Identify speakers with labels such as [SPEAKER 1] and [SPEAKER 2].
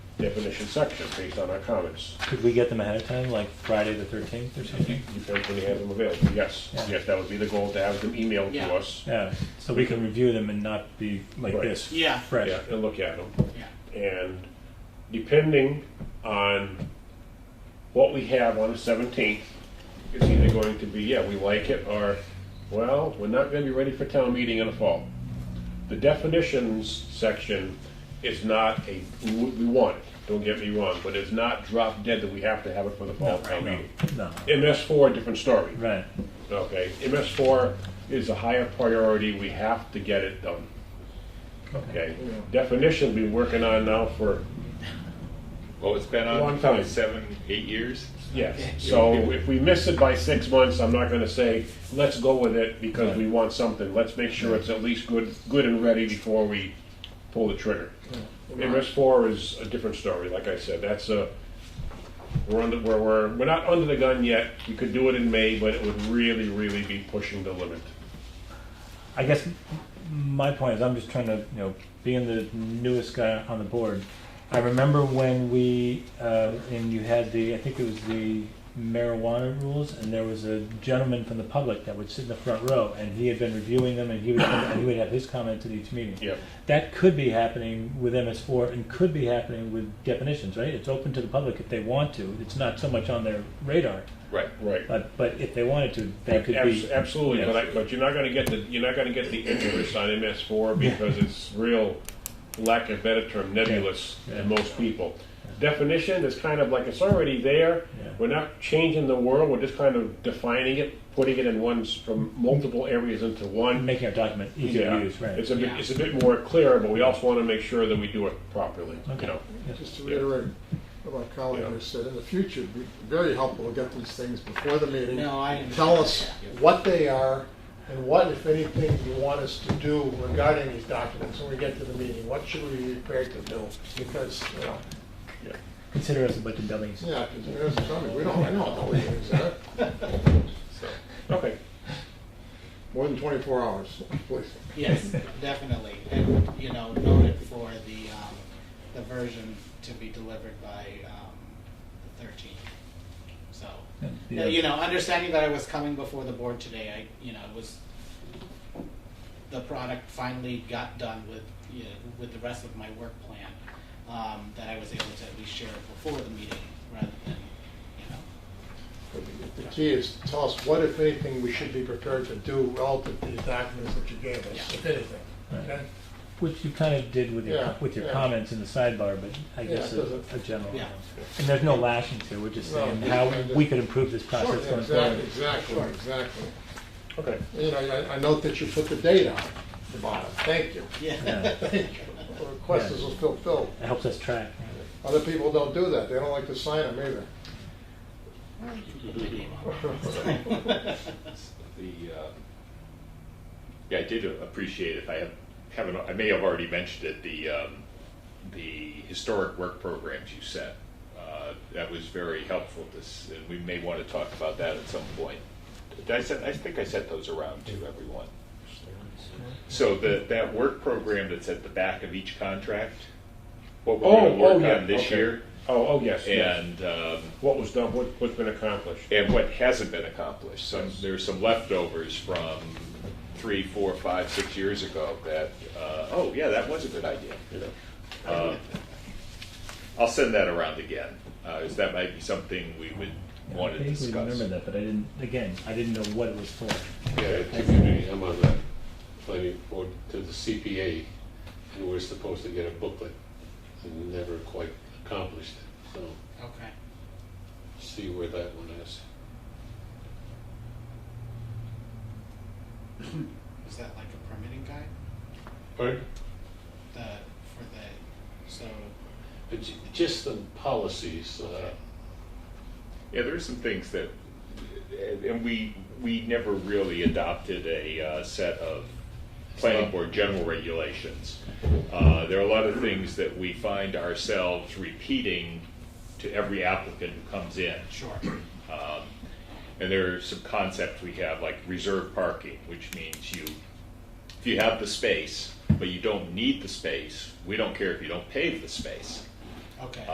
[SPEAKER 1] definition section based on our comments.
[SPEAKER 2] Could we get them ahead of time, like Friday the thirteenth or something?
[SPEAKER 1] If everybody has them available, yes,
[SPEAKER 2] Yeah.
[SPEAKER 1] yes, that would be the goal, to have them emailed
[SPEAKER 3] Yeah.
[SPEAKER 1] to us.
[SPEAKER 2] Yeah, so we can review them and not be like
[SPEAKER 1] Right.
[SPEAKER 2] this.
[SPEAKER 3] Yeah.
[SPEAKER 1] Yeah,
[SPEAKER 2] Fresh.
[SPEAKER 1] and look at them.
[SPEAKER 3] Yeah.
[SPEAKER 1] And depending on what we have on the seventeenth, it's either going to be, yeah, we like it, or, well, we're not gonna be ready for town meeting in the fall. The definitions section is not a, we we want it, don't get me wrong, but it's not drop dead that we have to have it for the fall town meeting.
[SPEAKER 2] No,
[SPEAKER 1] MS four, different story.
[SPEAKER 2] right,
[SPEAKER 1] Okay, MS four is a higher priority, we have to get it done. Okay, definition we've been working on now for,
[SPEAKER 4] Well, it's been
[SPEAKER 1] Long
[SPEAKER 4] on
[SPEAKER 1] time.
[SPEAKER 4] for seven, eight years.
[SPEAKER 1] yes. So if we miss it by six months, I'm not gonna say, let's go with it because we want something. Let's make sure it's at least good, good and ready before we pull the trigger. MS four is a different story, like I said, that's a, we're under, we're, we're, we're not under the gun yet. We could do it in May, but it would really, really be pushing the limit.
[SPEAKER 2] I guess m- my point is I'm just trying to, you know, being the newest guy on the board. I remember when we, uh, and you had the, I think it was the marijuana rules, and there was a gentleman from the public that would sit in the front row, and he had been reviewing them, and he would, and he would have his comments at each meeting.
[SPEAKER 1] Yeah.
[SPEAKER 2] That could be happening with MS4 and could be happening with definitions, right? It's open to the public if they want to. It's not so much on their radar,
[SPEAKER 4] Right.
[SPEAKER 1] Right.
[SPEAKER 2] but, but if they wanted to, they could
[SPEAKER 1] Abs-
[SPEAKER 2] be.
[SPEAKER 1] Absolutely,
[SPEAKER 2] yeah.
[SPEAKER 1] but I, but you're not gonna get the, you're not gonna get the interest on MS four because it's real, lack of better term, nebulous
[SPEAKER 2] Yeah.
[SPEAKER 1] to most people. Definition is kind of like, it's already there,
[SPEAKER 2] Yeah.
[SPEAKER 1] we're not changing the world, we're just kind of defining it, putting it in ones, from multiple areas into one.
[SPEAKER 2] Making our document easier
[SPEAKER 1] Yeah,
[SPEAKER 2] to use, right?
[SPEAKER 1] It's a bit,
[SPEAKER 3] Yeah.
[SPEAKER 1] it's a bit more clear, but we also wanna make sure that we do it properly,
[SPEAKER 2] Okay.
[SPEAKER 1] you know?
[SPEAKER 5] Just to reiterate what my colleague has said, in the future, it'd be very helpful to get these things before the meeting.
[SPEAKER 3] No, I understand.
[SPEAKER 5] Tell us what they are and what, if anything, you want us to do regarding these documents when we get to the meeting. What should we be prepared to do? Because, you know,
[SPEAKER 2] Consider us a bunch of dummies.
[SPEAKER 5] yeah, because there's something, we don't, we don't know what these are.
[SPEAKER 4] So,
[SPEAKER 1] Okay,
[SPEAKER 5] More than twenty-four hours, please.
[SPEAKER 3] Yes, definitely, and, you know, noted for the, um, the version to be delivered by, um, the thirteenth. So,
[SPEAKER 2] And the
[SPEAKER 3] yeah,
[SPEAKER 2] other-
[SPEAKER 3] you know, understanding that I was coming before the board today, I, you know, it was, the product finally got done with, you know, with the rest of my work plan, um, that I was able to at least share it before the meeting, rather than, you know,
[SPEAKER 5] The key is, tell us what, if anything, we should be prepared to do relative to these documents that you gave us, if anything,
[SPEAKER 2] Right.
[SPEAKER 5] okay?
[SPEAKER 2] Which you kind of did with your,
[SPEAKER 5] Yeah,
[SPEAKER 2] with your
[SPEAKER 5] yeah.
[SPEAKER 2] comments in the sidebar, but I
[SPEAKER 5] Yeah,
[SPEAKER 2] guess
[SPEAKER 5] it
[SPEAKER 2] a
[SPEAKER 5] doesn't-
[SPEAKER 2] a general.
[SPEAKER 3] Yeah.
[SPEAKER 2] And there's no lashing to, we're just
[SPEAKER 5] No,
[SPEAKER 2] saying
[SPEAKER 5] it's
[SPEAKER 2] how
[SPEAKER 5] kind of-
[SPEAKER 2] we could improve this
[SPEAKER 5] Sure,
[SPEAKER 2] process going
[SPEAKER 5] exact-
[SPEAKER 2] forward.
[SPEAKER 5] Exactly, exactly.
[SPEAKER 1] okay.
[SPEAKER 5] You know, I, I note that you put the date on the bottom, thank you.
[SPEAKER 3] yeah.
[SPEAKER 2] Yeah.
[SPEAKER 5] Thank you. The Request is fulfilled.
[SPEAKER 2] It helps us track.
[SPEAKER 5] Other people don't do that, they don't like to sign them either.
[SPEAKER 3] Put my name on it.
[SPEAKER 4] the, uh, yeah, I did appreciate, if I have- haven't, I may have already mentioned it, the, um, the historic work programs you set. Uh, That was very helpful, this, and we may want to talk about that at some point. Did I sent, I think I sent those around to everyone. So the, that work program that's at the back of each contract, what we're
[SPEAKER 1] Oh,
[SPEAKER 4] going to
[SPEAKER 1] oh,
[SPEAKER 4] work
[SPEAKER 1] yeah,
[SPEAKER 4] on this
[SPEAKER 1] okay.
[SPEAKER 4] year,
[SPEAKER 1] Oh, oh, yes, yes.
[SPEAKER 4] and um,
[SPEAKER 1] What was done, what, what's been accomplished?
[SPEAKER 4] and what hasn't been accomplished. Some,
[SPEAKER 1] Yes.
[SPEAKER 4] there's some leftovers from three, four, five, six years ago that, uh, oh, yeah, that was a good idea. you know. Um, I'll send that around again, because that might be something we would want to
[SPEAKER 2] I vaguely
[SPEAKER 4] discuss.
[SPEAKER 2] remember that, but I didn't, again, I didn't know what it was for.
[SPEAKER 6] Yeah, typically, I'm on the planning board to the CPA, and we're supposed to get a booklet, and never quite accomplished it, so
[SPEAKER 3] Okay.
[SPEAKER 6] see where that one is.
[SPEAKER 3] Is that like a permitting guide?
[SPEAKER 6] Pardon?
[SPEAKER 3] The, for the, so,
[SPEAKER 6] But ju- Just the policies, uh,
[SPEAKER 4] Yeah, there are some things that, and we, we never really adopted a uh, set of planning board general regulations. Uh, There are a lot of things that we find ourselves repeating to every applicant who comes in.
[SPEAKER 3] sure,
[SPEAKER 4] Um, And there are some concepts we have, like reserve parking, which means you, if you have the space, but you don't need the space, we don't care if you don't pave the space.
[SPEAKER 3] okay.